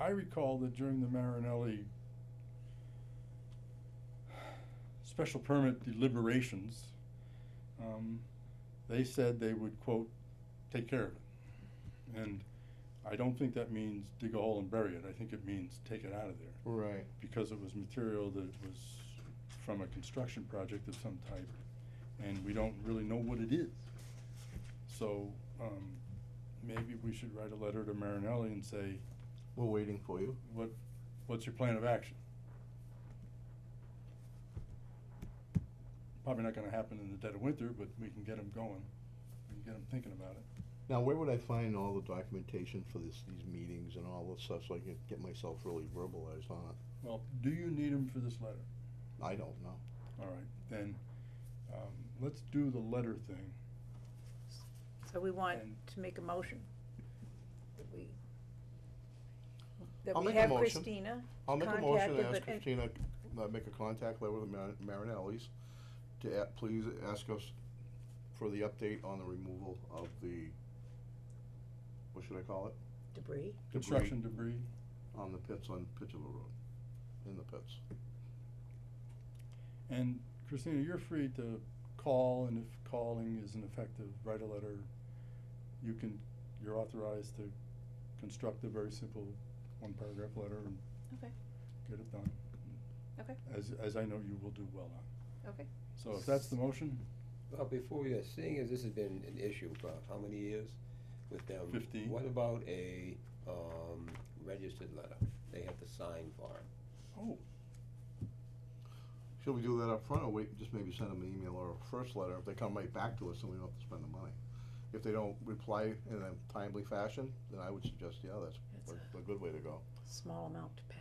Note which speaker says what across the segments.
Speaker 1: I recall that during the Marinelli special permit deliberations, um, they said they would quote, take care of it. And I don't think that means dig a hole and bury it, I think it means take it out of there,
Speaker 2: Right.
Speaker 1: because it was material that was from a construction project of some type, and we don't really know what it is. So, um, maybe we should write a letter to Marinelli and say,
Speaker 2: We're waiting for you.
Speaker 1: what, what's your plan of action? Probably not gonna happen in the dead of winter, but we can get them going, we can get them thinking about it.
Speaker 2: Now, where would I find all the documentation for this, these meetings and all this stuff, so I can get myself really verbalized on it?
Speaker 1: Well, do you need them for this letter?
Speaker 2: I don't know.
Speaker 1: All right, then, um, let's do the letter thing.
Speaker 3: So we want
Speaker 1: And-
Speaker 3: to make a motion. that we- That
Speaker 2: I'll
Speaker 3: we
Speaker 2: make a
Speaker 3: have
Speaker 2: motion.
Speaker 3: Christina,
Speaker 2: I'll make a motion
Speaker 3: Contacted,
Speaker 2: to ask
Speaker 3: but- and-
Speaker 2: Christina, uh, make a contact letter with Mar- Marinelli's to a- please ask us for the update on the removal of the, what should I call it?
Speaker 3: debris,
Speaker 1: Construction debris,
Speaker 2: On the pits on Pittsville Road, in the pits.
Speaker 1: and Christina, you're free to call, and if calling isn't effective, write a letter. You can, you're authorized to construct a very simple one-paragraph letter and
Speaker 4: Okay,
Speaker 1: get it done.
Speaker 4: Okay.
Speaker 1: As, as I know you will do well on.
Speaker 4: okay.
Speaker 1: So if that's the motion,
Speaker 5: Well, before we, are seeing as this has been an issue for how many years with them?
Speaker 1: 15.
Speaker 5: What about a, um, registered letter? They have to sign for it.
Speaker 1: oh,
Speaker 2: Should we do that up front, or wait, just maybe send them an email or a first letter, if they come right back to us, then we don't have to spend the money. If they don't reply in a timely fashion, then I would suggest, yeah, that's
Speaker 3: That's
Speaker 2: a- a good way to go.
Speaker 3: small amount to pay.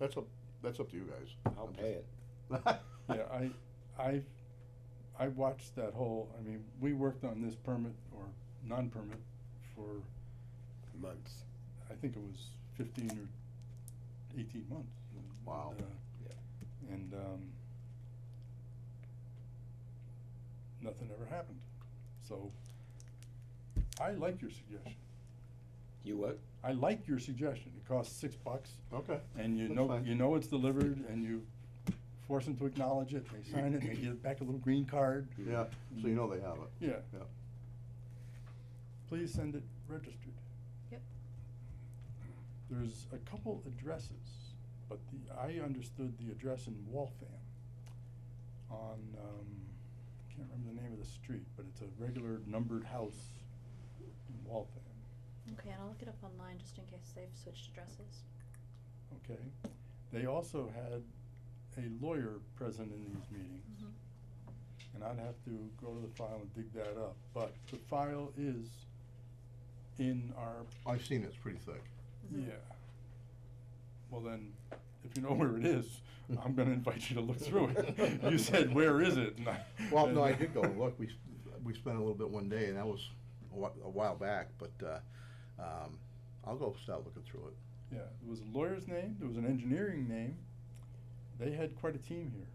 Speaker 2: That's up, that's up to you guys.
Speaker 5: I'll
Speaker 2: I'm
Speaker 5: pay it.
Speaker 2: just-
Speaker 1: yeah, I, I, I watched that whole, I mean, we worked on this permit or non-permit for,
Speaker 5: Months.
Speaker 1: I think it was fifteen or eighteen months. And,
Speaker 2: Wow.
Speaker 1: uh, And, um, nothing ever happened. So I like your suggestion.
Speaker 5: You what?
Speaker 1: I like your suggestion. It costs six bucks.
Speaker 2: Okay,
Speaker 1: And you
Speaker 2: That's
Speaker 1: know,
Speaker 2: fine.
Speaker 1: you know it's delivered and you force them to acknowledge it, they sign it, they give back a little green card.
Speaker 2: yeah, so you know they have it.
Speaker 1: Yeah.
Speaker 2: Yeah.
Speaker 1: Please send it registered.
Speaker 4: Yep.
Speaker 1: There's a couple addresses, but the, I understood the address in Waltham on, um, can't remember the name of the street, but it's a regular numbered house in Waltham,
Speaker 4: Okay, and I'll look it up online just in case they've switched addresses.
Speaker 1: okay? They also had a lawyer present in these meetings.
Speaker 3: Mm-hmm.
Speaker 1: and I'd have to go to the file and dig that up, but the file is in our,
Speaker 2: I've seen it, it's pretty thick.
Speaker 3: Mm-hmm.
Speaker 1: yeah. Well then, if you know where it is, I'm gonna invite you to look through it. You said, where is it? And I-
Speaker 2: Well, no, I
Speaker 1: and-
Speaker 2: did go, and look, we, s- we spent a little bit one day, and that was a whi- a while back, but, uh, um, I'll go start looking through it.
Speaker 1: Yeah, there was a lawyer's name, there was an engineering name, they had quite a team here.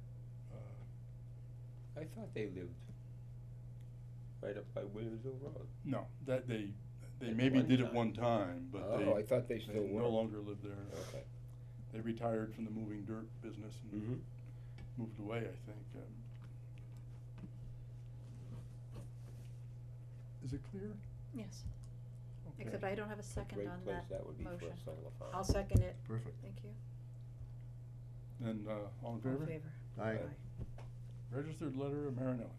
Speaker 1: Uh,
Speaker 5: I thought they lived right up by Williamsville Road.
Speaker 1: No, that they, they
Speaker 5: At
Speaker 1: maybe
Speaker 5: one
Speaker 1: did it
Speaker 5: time.
Speaker 1: one time, but
Speaker 5: Oh, I
Speaker 1: they,
Speaker 5: thought they
Speaker 1: they
Speaker 5: still were.
Speaker 1: no longer live there.
Speaker 5: Okay.
Speaker 1: They retired from the moving dirt business and moved away, I think. um. Is it clear?
Speaker 4: Yes,
Speaker 1: Okay.
Speaker 4: except I don't have a second
Speaker 5: Great
Speaker 4: on
Speaker 5: place
Speaker 4: that
Speaker 5: that would be for
Speaker 4: motion.
Speaker 5: a solar farm.
Speaker 3: I'll second it.
Speaker 2: Perfect.
Speaker 4: Thank you.
Speaker 1: And, uh, all in
Speaker 3: All in
Speaker 1: favor?
Speaker 3: favor?
Speaker 2: Aye.
Speaker 3: Aye.
Speaker 1: Registered letter of Marinelli.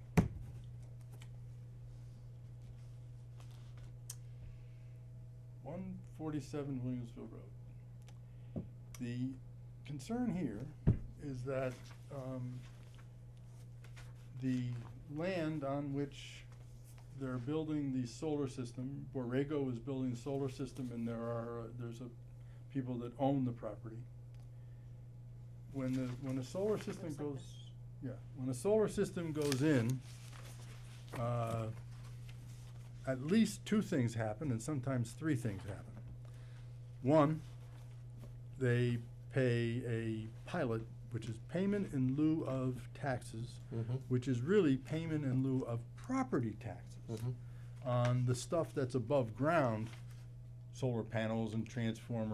Speaker 1: One forty-seven Williamsville Road. The concern here is that, um, the land on which they're building the solar system, Borrego is building the solar system and there are, uh, there's a, people that own the property. When the, when the solar system
Speaker 4: Looks like
Speaker 1: goes, yeah, when a solar system goes in, uh, at least two things happen, and sometimes three things happen. One, they pay a pilot, which is payment in lieu of taxes,
Speaker 2: Mm-hmm.
Speaker 1: which is really payment in lieu of property taxes
Speaker 2: Mhm.
Speaker 1: on the stuff that's above ground, solar panels and transformers.